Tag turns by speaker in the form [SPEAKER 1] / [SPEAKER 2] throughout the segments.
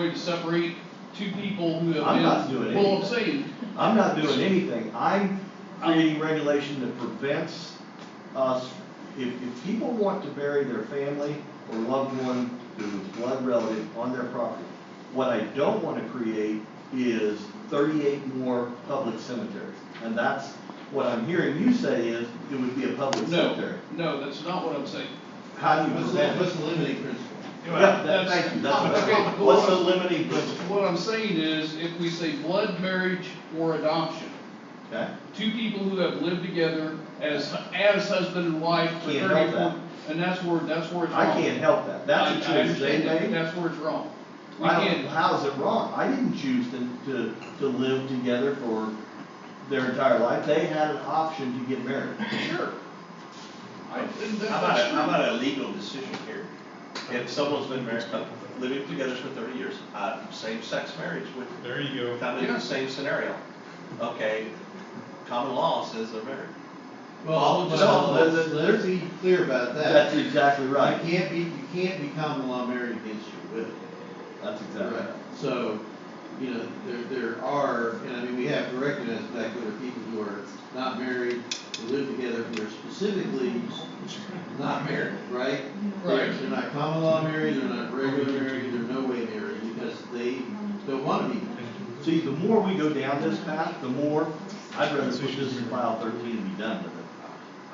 [SPEAKER 1] to separate two people who have been.
[SPEAKER 2] I'm not doing
[SPEAKER 1] Well, I'm
[SPEAKER 2] anything.
[SPEAKER 1] saying,
[SPEAKER 2] I'm not doing anything, I'm creating regulation that prevents us, if, if people want to bury their family or loved one who's blood relative on their property, what I don't wanna create is thirty-eight more public cemeteries, and that's, what I'm hearing you say is, it would be a public
[SPEAKER 1] no,
[SPEAKER 2] cemetery.
[SPEAKER 1] no, that's not what I'm saying.
[SPEAKER 2] How do you
[SPEAKER 3] What's the,
[SPEAKER 2] prevent
[SPEAKER 3] what's
[SPEAKER 2] it?
[SPEAKER 3] the limiting principle?
[SPEAKER 2] Yeah, that- thank you, that's,
[SPEAKER 1] Okay,
[SPEAKER 2] what-
[SPEAKER 1] but
[SPEAKER 2] what's the
[SPEAKER 1] what-
[SPEAKER 2] limiting principle,
[SPEAKER 1] What I'm saying is, if we say blood marriage or adoption,
[SPEAKER 2] okay?
[SPEAKER 1] two people who have lived together as, as husband and wife for
[SPEAKER 2] Can't help
[SPEAKER 1] thirty-four, and that's where, that's where it's wrong.
[SPEAKER 2] I can't help that, that's
[SPEAKER 1] I-
[SPEAKER 2] a
[SPEAKER 1] I
[SPEAKER 2] choice they
[SPEAKER 1] understand that,
[SPEAKER 2] made.
[SPEAKER 1] That's where it's wrong. We
[SPEAKER 2] I don't,
[SPEAKER 1] can't,
[SPEAKER 2] how is it wrong? I didn't choose to, to, to live together for their entire life. They had an option to get married.
[SPEAKER 1] sure. I think that-
[SPEAKER 3] How about,
[SPEAKER 1] that's
[SPEAKER 3] a- how
[SPEAKER 1] true.
[SPEAKER 3] about a legal decision here? If someone's been married, uh, living together for thirty years, uh, same-sex marriage would
[SPEAKER 4] There you go.
[SPEAKER 3] come into
[SPEAKER 1] Yeah.
[SPEAKER 3] the same scenario. Okay, common law says they're married.
[SPEAKER 5] Well,
[SPEAKER 3] Well,
[SPEAKER 5] well,
[SPEAKER 2] let's-
[SPEAKER 5] let's, let's be clear about that.
[SPEAKER 2] That's exactly right.
[SPEAKER 5] You can't be, you can't be common law married against your will.
[SPEAKER 2] That's exactly right.
[SPEAKER 5] So, you know, there, there are, and I mean, we have to recognize the fact that there are people who are not married, who live together, who are specifically not married, right? They're-
[SPEAKER 1] Right.
[SPEAKER 5] They're not common law married, they're not regular married, they're no way married, because they don't wanna be married.
[SPEAKER 2] See, the more we go down this path, the more, I'd rather push this in file thirteen and be done with it.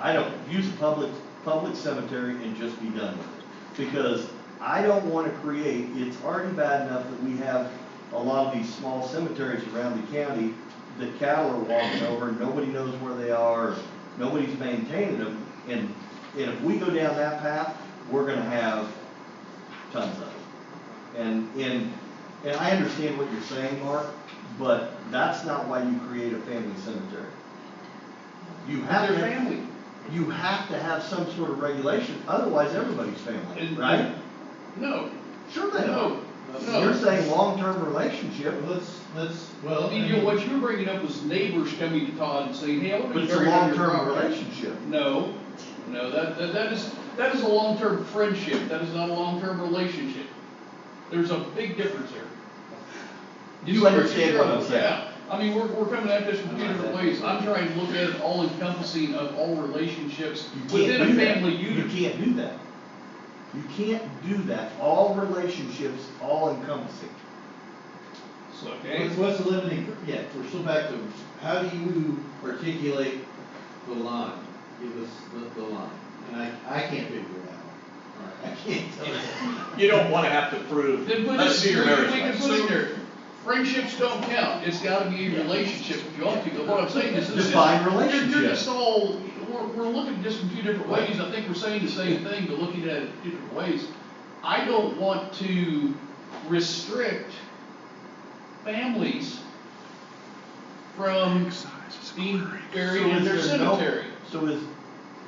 [SPEAKER 2] I don't, use a public, public cemetery and just be done with it. Because I don't wanna create, it's already bad enough that we have a lot of these small cemeteries around the county that cattle are walking over, and nobody knows where they are, nobody's maintaining them. And, and if we go down that path, we're gonna have tons of it. And, and, and I understand what you're saying, Mark, but that's not why you create a family cemetery. You have
[SPEAKER 1] Their
[SPEAKER 2] to,
[SPEAKER 1] family.
[SPEAKER 2] you have to have some sort of regulation, otherwise everybody's family,
[SPEAKER 1] And-
[SPEAKER 2] right?
[SPEAKER 1] No,
[SPEAKER 2] Sure they
[SPEAKER 1] no,
[SPEAKER 2] are. You're
[SPEAKER 1] no.
[SPEAKER 2] saying long-term relationship,
[SPEAKER 5] Well, Let's, let's, well.
[SPEAKER 1] Well,
[SPEAKER 5] I
[SPEAKER 1] you
[SPEAKER 5] mean-
[SPEAKER 1] know, what you're bringing up was neighbors coming to Todd and saying, hey, I want to
[SPEAKER 2] but
[SPEAKER 1] be
[SPEAKER 2] it's a
[SPEAKER 1] buried on your
[SPEAKER 2] long-term
[SPEAKER 1] property.
[SPEAKER 2] relationship.
[SPEAKER 1] No, no, that, that, that is, that is a long-term friendship, that is not a long-term relationship. There's a big difference here.
[SPEAKER 2] You understand what I'm saying.
[SPEAKER 1] Yeah, I mean, we're, we're coming at this from two different ways, I'm trying to look at it all encompassing of all relationships
[SPEAKER 2] You can't
[SPEAKER 1] within a
[SPEAKER 2] do that.
[SPEAKER 1] family
[SPEAKER 2] You
[SPEAKER 1] unit.
[SPEAKER 2] can't do that. You can't do that, all relationships, all encompassing.
[SPEAKER 1] Okay,
[SPEAKER 5] What's, what's the limiting, yeah, we're still back to, how do you articulate the line? Give us the, the line, and I, I can't figure it out. I can't tell you.
[SPEAKER 3] You don't wanna have to prove,
[SPEAKER 1] then put
[SPEAKER 3] let's
[SPEAKER 1] it,
[SPEAKER 3] see
[SPEAKER 1] we
[SPEAKER 3] your marriage
[SPEAKER 1] we can
[SPEAKER 3] license.
[SPEAKER 1] put in there, friendships don't count, it's gotta be a relationship if you want to, but what I'm saying is. this is-
[SPEAKER 2] Define
[SPEAKER 1] You're- You're
[SPEAKER 2] relationship.
[SPEAKER 1] just all, we're, we're looking just from two different ways, I think we're saying the same thing, but looking at it two different ways. I don't want to restrict families from being buried in
[SPEAKER 2] So is
[SPEAKER 1] their
[SPEAKER 2] there no-
[SPEAKER 1] cemetery.
[SPEAKER 2] So is,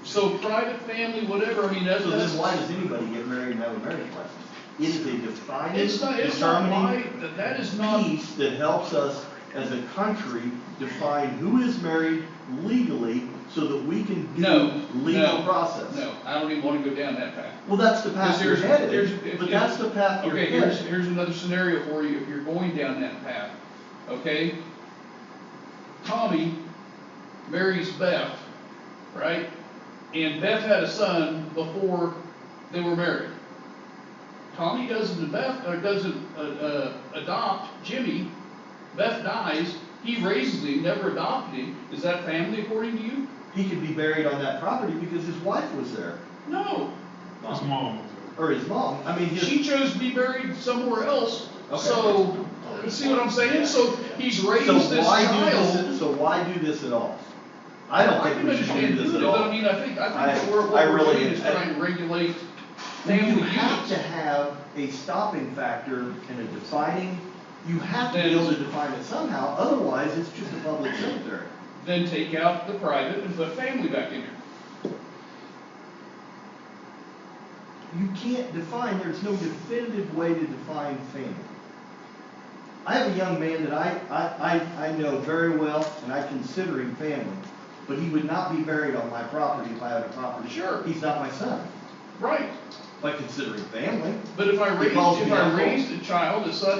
[SPEAKER 1] So private family, whatever, I mean, that's,
[SPEAKER 2] so
[SPEAKER 1] that's.
[SPEAKER 2] then why does anybody get married and have a marriage license? It is a defining,
[SPEAKER 1] It's not, it's not
[SPEAKER 2] determining
[SPEAKER 1] why, that- that is not.
[SPEAKER 2] piece that helps us as a country define who is married legally so that we can
[SPEAKER 1] No,
[SPEAKER 2] do legal
[SPEAKER 1] no,
[SPEAKER 2] process.
[SPEAKER 1] No, I don't even wanna go down that path.
[SPEAKER 2] Well, that's the path you're
[SPEAKER 1] Because there's-
[SPEAKER 2] headed,
[SPEAKER 1] there's-
[SPEAKER 2] but that's the path you're
[SPEAKER 1] Okay, here's,
[SPEAKER 2] headed.
[SPEAKER 1] here's another scenario for you, if you're going down that path, okay? Tommy marries Beth, right? And Beth had a son before they were married. Tommy doesn't, Beth, uh doesn't, uh, uh, adopt Jimmy, Beth dies, he raises him, never adopted him, is that family according to you?
[SPEAKER 2] He could be buried on that property because his wife was there,
[SPEAKER 1] No,
[SPEAKER 4] His mom.
[SPEAKER 2] or his mom, I mean, his,
[SPEAKER 1] She chose to be buried somewhere else,
[SPEAKER 2] Okay.
[SPEAKER 1] so, you see what I'm saying? So he's raised
[SPEAKER 2] so
[SPEAKER 1] this
[SPEAKER 2] why do
[SPEAKER 1] child.
[SPEAKER 2] this, so why do this at all? I don't think
[SPEAKER 1] can
[SPEAKER 2] we should do
[SPEAKER 1] understand
[SPEAKER 2] this
[SPEAKER 1] doing
[SPEAKER 2] at
[SPEAKER 1] it,
[SPEAKER 2] all.
[SPEAKER 1] But I mean, I think, I
[SPEAKER 2] I-
[SPEAKER 1] think that we're,
[SPEAKER 2] I
[SPEAKER 1] what we're
[SPEAKER 2] really-
[SPEAKER 1] doing is
[SPEAKER 2] I-
[SPEAKER 1] trying to regulate
[SPEAKER 2] You
[SPEAKER 1] family
[SPEAKER 2] have to
[SPEAKER 1] units.
[SPEAKER 2] have a stopping factor and a defining, you have to be able to define it somehow, otherwise it's just a public cemetery.
[SPEAKER 1] Then take out the private and put family back in there.
[SPEAKER 2] You can't define, there's no definitive way to define family. I have a young man that I, I, I, I know very well, and I consider him family, but he would not be buried on my property if I had a property.
[SPEAKER 1] Sure.
[SPEAKER 2] He's not my son,
[SPEAKER 1] Right,
[SPEAKER 2] but considering family.
[SPEAKER 1] but if I
[SPEAKER 2] It
[SPEAKER 1] raised,
[SPEAKER 2] calls
[SPEAKER 1] if
[SPEAKER 2] me
[SPEAKER 1] I
[SPEAKER 2] uncle.
[SPEAKER 1] raised a child, a son